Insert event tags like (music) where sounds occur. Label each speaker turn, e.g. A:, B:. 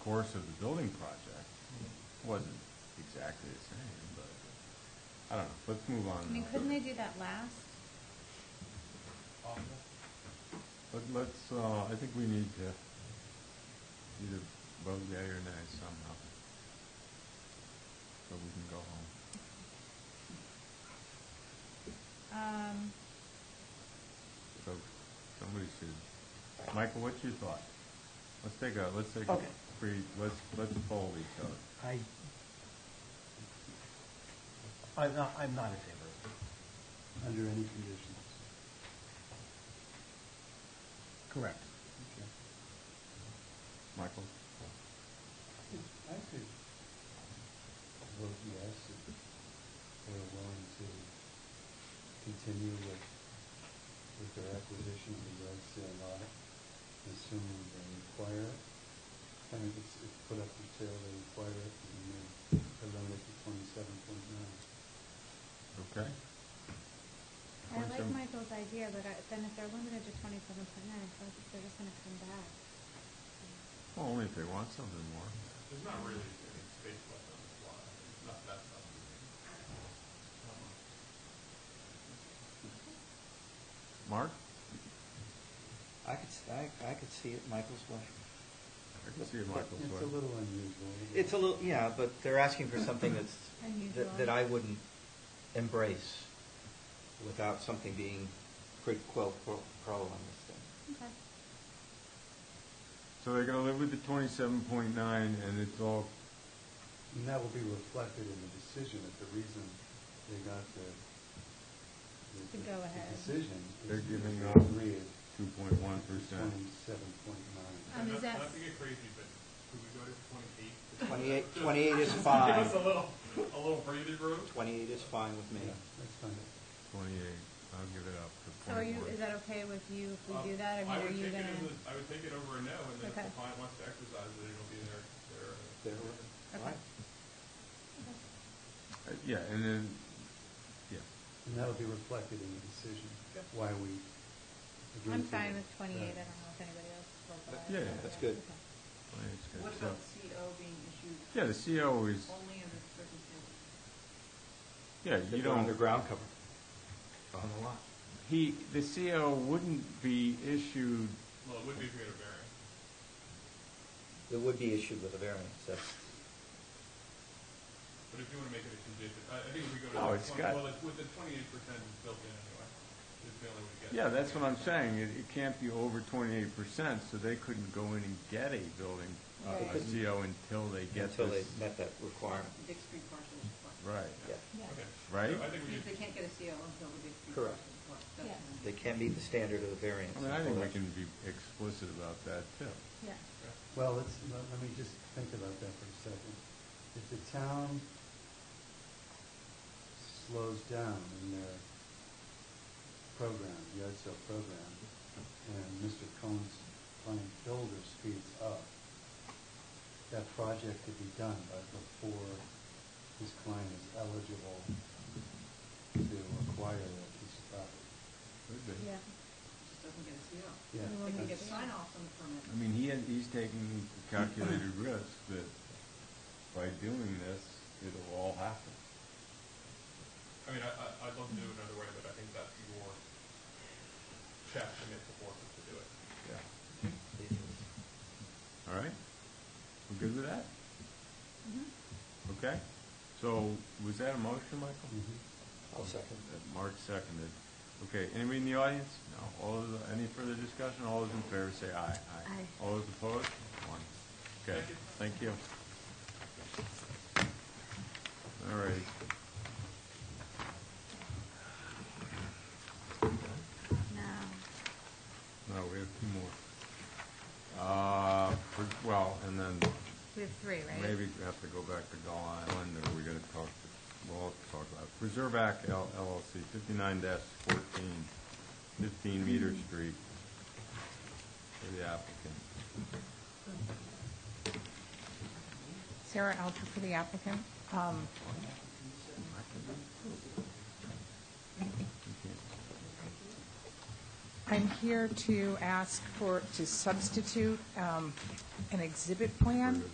A: course of the building project. Wasn't exactly the same, but, I don't know, let's move on.
B: I mean,
A: now.
B: couldn't they do that last?
A: But let's, uh, I think we need to either vote yea or nay somehow, so we can go home.
B: Um,
A: So, somebody should, Michael, what's your thought? Let's take a, let's take a
C: Okay.
A: free, let's, let's poll each other.
C: I, I'm not, I'm not in favor of it.
D: Under any conditions.
C: Correct.
D: Okay.
A: Michael?
D: I could vote yes if we're willing to continue with, with their acquisition of the yard sale lot, assuming they require it. I mean, it's, it's put up for sale, they require it, and then eliminate the twenty-seven point nine.
A: Okay.
B: I like
A: 27.
B: Michael's idea, but I, then if they're limited to twenty-seven point nine, I feel like they're just gonna come back.
A: Well, only if they want something more.
E: There's not really any space left on this lot. It's not that much. Not much.
B: Um,
A: Mark?
F: I could, s- I, I could see it Michael's way.
A: I can see it Michael's
D: It's a
A: way.
D: little unusual. but-
F: It's a little, yeah, but they're asking for something that's,
B: Unusual.
F: that, that I wouldn't embrace without something being quid quo pro, pro on this thing.
B: Okay.
A: So they're gonna live with the twenty-seven point nine, and it's all,
D: And that will be reflected in the decision, that the reason they got the, the-
B: To
D: the-
B: go
D: the
B: ahead.
D: decision. is
A: They're
D: because
A: giving
D: they
A: up
D: Agree at
A: two point one percent.
D: twenty-seven point nine.
B: Um,
E: Not-
B: is that-
E: Not to get crazy, but could we go to twenty-eight?
F: Twenty-eight, twenty-eight
E: (laughs)
F: is fine.
E: Give us a little, a little breather room.
F: Twenty-eight is fine with me.
D: Yeah, that's fine.
A: Twenty-eight, I'll give it up
B: So
A: to
B: are you,
A: twenty-one.
B: is that okay with you if
E: Um,
B: we do that? I mean,
E: I
B: are
E: would
B: you
E: take it as
B: gonna?
E: a- I would take it over a no, and then if
B: Okay.
E: the client wants to exercise it, it'll be their, their.
F: There,
B: Okay.
F: right.
A: Uh, Yeah, and then, yeah,
D: And that'll be reflected in the decision,
E: Yep.
D: why we agree
B: I'm
D: to
B: fine
D: it.
B: with twenty-eight, I
D: Yeah.
B: don't know if anybody else will, but. I-
A: Yeah, yeah,
F: that's good.
A: I
B: okay.
A: think it's good.
G: What
A: So-
G: about CO being issued
A: Yeah, the CO is,
G: only under certain conditions?
A: yeah, you
F: If they're
A: don't.
F: Underground cover.
A: On the lot. He, the CO wouldn't be issued,
E: Well, it would be if we had a variance.
F: It would be issued with a variance, that's,
E: But if you want to make it a condition, I, I think if we go to.
A: No,
E: the
A: it's
E: 20
A: got-
E: Well, it's with the twenty-eight percent built in anyway. It's the only way to get.
A: yeah,
E: it.
A: that's what I'm saying, it, it can't be over twenty-eight percent, so they couldn't go in and get a building, uh, a
F: Right.
A: CO until they get
F: until they
A: this.
F: met that requirement,
G: Big Street parcel is required.
A: Right,
F: yeah.
B: Yeah.
E: Okay.
A: Right?
E: So I think we should.
G: Because they can't get a CO until the Big Street parcel
F: Correct.
G: is required. That's
B: Yeah.
G: what I'm-
F: They can't meet the standard of the variance.
A: I mean, I think
F: until
A: we
F: that-
A: can be explicit about that too.
B: Yeah,
D: Well, let's, let let me just think about that for a second. If the town slows down in their program, yard sale program, and Mr. Cohen's client builder speeds up, that project could be done by before his client is eligible to acquire that piece of property.
A: Could be.
B: yeah.
G: Just doesn't get a CO.
D: Yeah.
B: We
G: They
B: won't
G: can
B: get
G: get
B: a CO.
G: sign offs on the permit.
A: I mean, he, had- he's taking the calculated (coughs) risk that by doing this, it'll all happen.
E: I mean, I, I, I'd love to do it another way, but I think that's your check to make the forces to do it.
A: Yeah. All right? We're good with that?
B: Mhm.
A: Okay? So, was that a motion, Michael?
D: Mhm.
F: I'll second.
A: That Mark seconded. Okay, anybody in the audience? No. All those, any further discussion? All those in favor say aye.
B: Aye.
A: All those opposed? One. Okay, thank you. All right.
B: Now,
A: No, we have two more. Uh, for- well, and then
B: we have three, right?
A: maybe we have to go back to Gull Island, or we're gonna talk, to- we'll have to talk about it. Preserve Act L- LLC, fifty-nine 14 15 Meter Street, for the applicant.
H: Sarah Alter for the applicant. Um,
A: You can't-
H: I'm here to ask for, to substitute um, an exhibit plan?